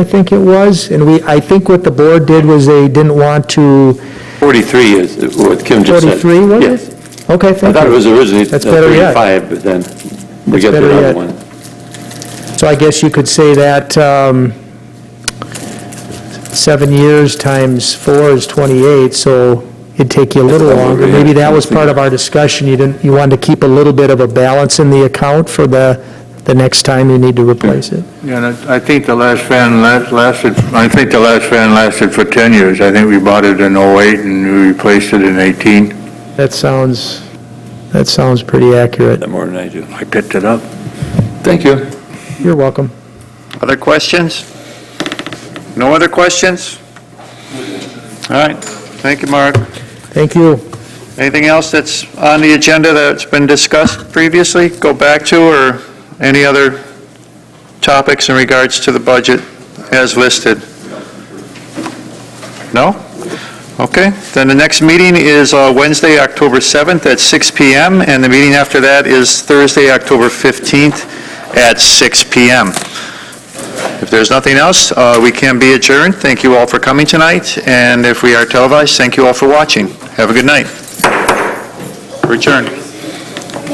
I think it was, and we, I think what the board did was they didn't want to, 43 is what Kim just said. 43, was Yes. it? Okay, I thank thought it you. was originally uh, That's better yet. 35, but then we got better the yet. other one. So I guess you could say that um, seven years times four is 28, so it'd take you a little That's over longer. here. Maybe that was part of our discussion, you didn't, you wanted to keep a little bit of a balance in the account for the, the next time you need to replace it. Yeah, and I- I think the last van la- lasted, I think the last van lasted for 10 years. I think we bought it in 08 and we replaced it in 18. That sounds, that sounds pretty accurate. That more than I do. I picked it up. Thank you. You're welcome. Other questions? No other questions? All right, thank you, Mark. Thank you. Anything else that's on the agenda that's been discussed previously, go back to, or any other topics in regards to the budget as listed? No? Okay, then the next meeting is uh, Wednesday, October 7th at 6 PM, and the meeting after that is Thursday, October 15th at 6 PM. If there's nothing else, uh, we can be adjourned. Thank you all for coming tonight, and if we are televised, thank you all for watching. Have a good night. Return.